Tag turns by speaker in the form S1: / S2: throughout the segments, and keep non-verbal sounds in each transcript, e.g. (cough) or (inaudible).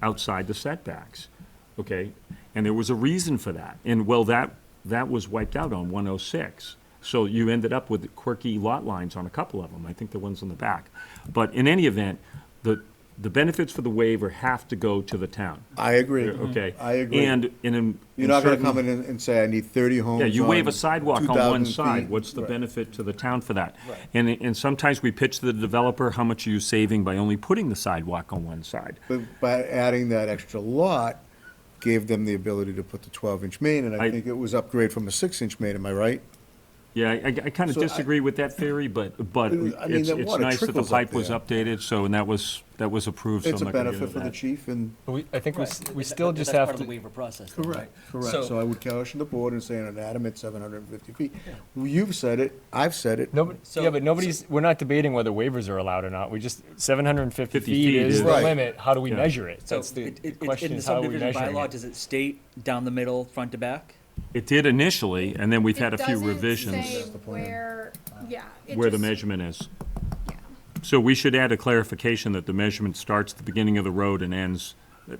S1: outside the setbacks, okay? And there was a reason for that, and well, that, that was wiped out on one oh six. So you ended up with quirky lot lines on a couple of them, I think the ones on the back. But in any event, the, the benefits for the waiver have to go to the town,
S2: I agree.
S1: okay?
S2: Hmm. I agree.
S1: And in. in
S2: You're not gonna
S1: certain-
S2: come in and and say, I need thirty homes
S1: yeah, you waive
S2: on
S1: a sidewalk on
S2: 2,000
S1: one side,
S2: feet."
S1: what's the
S2: Right.
S1: benefit to the town for that? And, and sometimes we pitch to the developer, how much are you saving by only putting the sidewalk on one side?
S2: But by adding that extra lot, gave them the ability to put the twelve-inch main, and I
S1: I-
S2: think it was upgrade from a six-inch main, am I right?
S1: Yeah, I, I kind of
S2: So I-
S1: disagree with that theory, but, but
S2: I mean,
S1: it's,
S2: that
S1: it's
S2: water
S1: nice that the
S2: trickles up
S1: pipe was
S2: there.
S1: updated, so, and that was, that was approved, so
S2: It's
S1: I'm not
S2: a
S1: gonna get
S2: benefit
S1: into
S2: for the
S1: that.
S2: chief and.
S3: We, I think we, s- we
S4: Right.
S3: still
S4: That-
S3: just
S4: that's
S3: have
S4: part of the
S3: to,
S4: waiver process. though, right?
S2: Correct, correct.
S3: So-
S2: So I would caution the board and say an adamant seven hundred and fifty feet. You've said it, I've said it.
S3: nobody,
S4: So-
S3: yeah, but nobody's, we're not debating whether waivers are allowed or not. We just, seven hundred and fifty
S1: 50
S3: feet
S1: feet
S3: is
S1: is-
S3: the
S2: Right.
S3: limit. How do we
S1: Yeah.
S3: measure it?
S4: So
S3: That's the
S4: it- it-
S3: the
S4: it-
S3: question
S4: in the
S3: is how are we
S4: subdivision
S3: measuring
S4: bylaw,
S3: it?
S4: does it state down the middle, front to back?
S1: It did initially, and then we've had a
S5: It
S1: few
S5: doesn't say
S1: revisions
S5: Where, yeah. it
S1: where the
S5: just-
S1: measurement is.
S5: yeah.
S1: So we should add a clarification that the measurement starts at the beginning of the road and ends,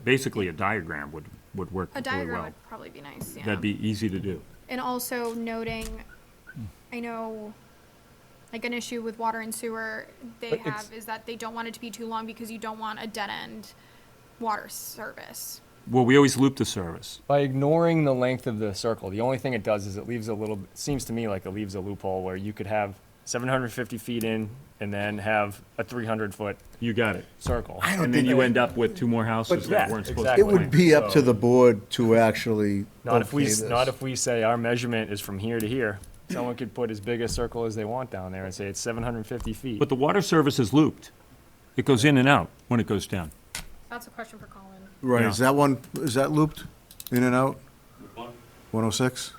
S1: basically a diagram would, would work
S5: A
S1: really
S5: diagram
S1: well.
S5: would probably be nice, yeah.
S1: That'd be easy to do.
S5: And also noting, I know, like an issue with water and sewer they
S3: But it's-
S5: have is that they don't want it to be too long because you don't want a dead end water service.
S1: Well, we always loop the service.
S3: By ignoring the length of the circle, the only thing it does is it leaves a little, seems to me like it leaves a loophole where you could have seven hundred and fifty feet in and then have a three hundred foot
S1: You got it.
S3: circle.
S2: I don't
S1: And then
S2: think-
S1: you end up with two more houses
S2: But
S1: that
S3: yeah,
S1: weren't supposed to.
S3: exactly.
S2: It would be up to the board to actually.
S3: Not if we,
S2: okay
S3: s-
S2: this.
S3: not if we say our measurement is from here to here. Someone could put as big a circle as they want down there and say it's seven hundred and fifty feet.
S1: But the water service is looped. It goes in and out when it goes down.
S5: That's a question for Colin.
S2: Right, is
S1: Yeah.
S2: that one, is that looped in and out? One oh six?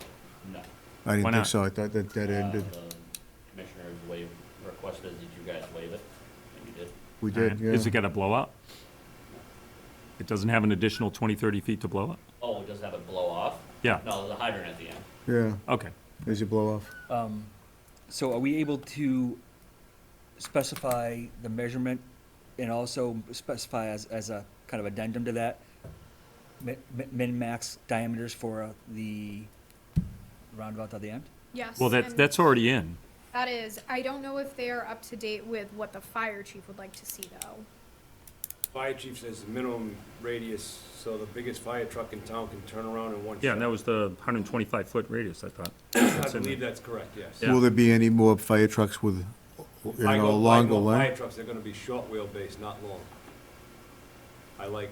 S2: No. I
S1: Why
S2: didn't
S1: not?
S2: think so, I thought that, that ended,
S6: Commissioner waive, requested, did you guys waive it? And you did.
S2: we did, yeah.
S1: Is it gonna blow up? It doesn't have an additional 20, 30 feet to blow up?
S6: Oh, it doesn't have it blow off?
S1: Yeah.
S6: No, there's a hydrant at the end.
S2: Yeah,
S1: Okay.
S2: as you blow off.
S4: Um, So are we able to specify the measurement and also specify as, as a kind of addendum to that? mi- mi- Min, max diameters for uh, the roundabout at the end?
S5: Yes.
S1: Well, that,
S5: and
S1: that's already in.
S5: That is, I don't know if they're up to date with what the fire chief would like to see though.
S7: Fire chief says the minimum radius, so the biggest fire truck in town can turn around in one shot.
S1: Yeah, and that was the 125-foot radius, I thought.
S7: I
S1: in
S7: believe that's correct, yes.
S1: Yeah.
S2: Will there be any more fire trucks with, you
S7: I
S2: know,
S7: go- I
S2: longer
S7: go Fire
S2: length?
S7: trucks, they're gonna be short wheelbase, not long. I like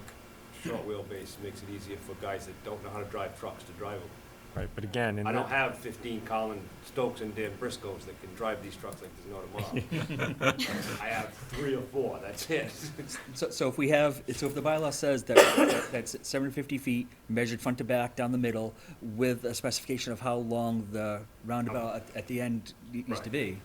S7: short wheelbase, makes it easier for guys that don't know how to drive trucks to drive them.
S3: Right, but again, in
S7: I don't
S3: that,
S7: have fifteen Colin Stokes and Dan Briscoes that can drive these trucks like there's
S1: (laughs)
S7: no tomorrow. I have three or four, that's it. (laughs)
S4: So, so if we have, so if the bylaw says that, that's seven hundred fifty feet, measured front to back, down the middle, with a specification of how long the roundabout at, at the end needs to be.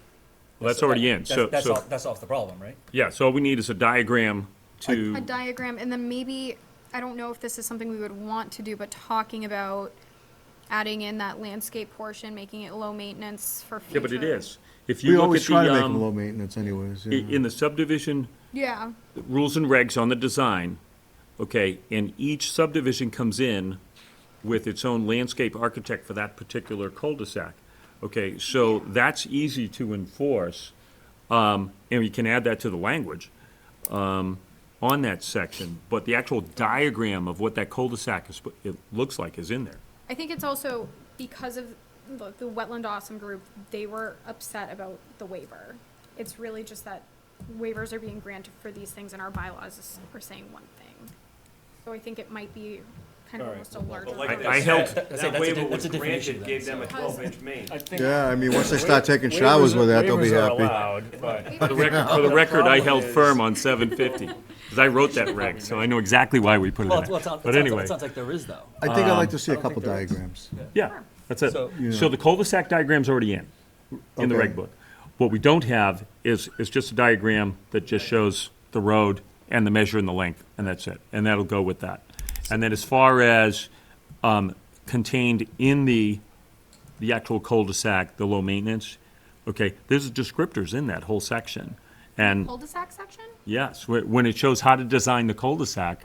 S1: Well, that's already in, so,
S4: That's,
S1: so,
S4: all, that's off the problem, right?
S1: yeah, so all we need is a diagram to,
S5: a diagram, and then maybe, I don't know if this is something we would want to do, but talking about adding in that landscape portion, making it low maintenance for
S1: yeah,
S5: future.
S1: but it is. If
S2: We
S1: you look
S2: always
S1: at
S2: try to
S1: the,
S2: make them low
S1: um,
S2: maintenance anyways,
S1: i-
S2: yeah.
S1: in the subdivision
S5: Yeah,
S1: rules and regs on the design, okay, and each subdivision comes in with its own landscape architect for that particular cul-de-sac. Okay, so that's easy to enforce, um, and you can add that to the language, um, on that section, but the actual diagram of what that cul-de-sac is, it looks like is in there.
S5: I think it's also because of the, the Wetland Awesome group, they were upset about the waiver. It's really just that waivers are being granted for these things, and our bylaws are saying one thing. So I think it might be kind of almost a larger.
S7: But like
S1: I-
S7: that-
S1: I held-
S7: that-
S4: That's a-
S7: That
S4: that's a
S7: waiver
S4: di- that's
S7: was
S4: a definition
S7: granted,
S4: then,
S7: gave them a
S5: so-
S7: twelve-inch main.
S3: I think.
S2: Yeah, I mean, once they start taking showers with that, they'll be happy.
S3: Allowed, but.
S1: For the record, for the record, I held firm on seven fifty, because I wrote that reg, so I know exactly why we put it
S4: Well,
S1: in
S4: it- well, it
S1: there.
S4: sounds, it
S1: But
S4: sounds,
S1: anyway.
S4: it sounds like there is though.
S2: I think I'd
S1: Um,
S2: like to see a
S4: don't think
S2: couple
S4: there is.
S2: diagrams.
S1: Yeah, that's it.
S4: So-
S1: So the cul-de-sac diagram's already in, in the
S2: Okay.
S1: reg book. What we don't have is, is just a diagram that just shows the road and the measure and the length, and that's it. And that'll go with that. And then as far as, um, contained in the, the actual cul-de-sac, the low maintenance, okay, there's descriptors in that whole section. And
S5: Cul-de-sac section?
S1: yes, wh- when it shows how to design the cul-de-sac,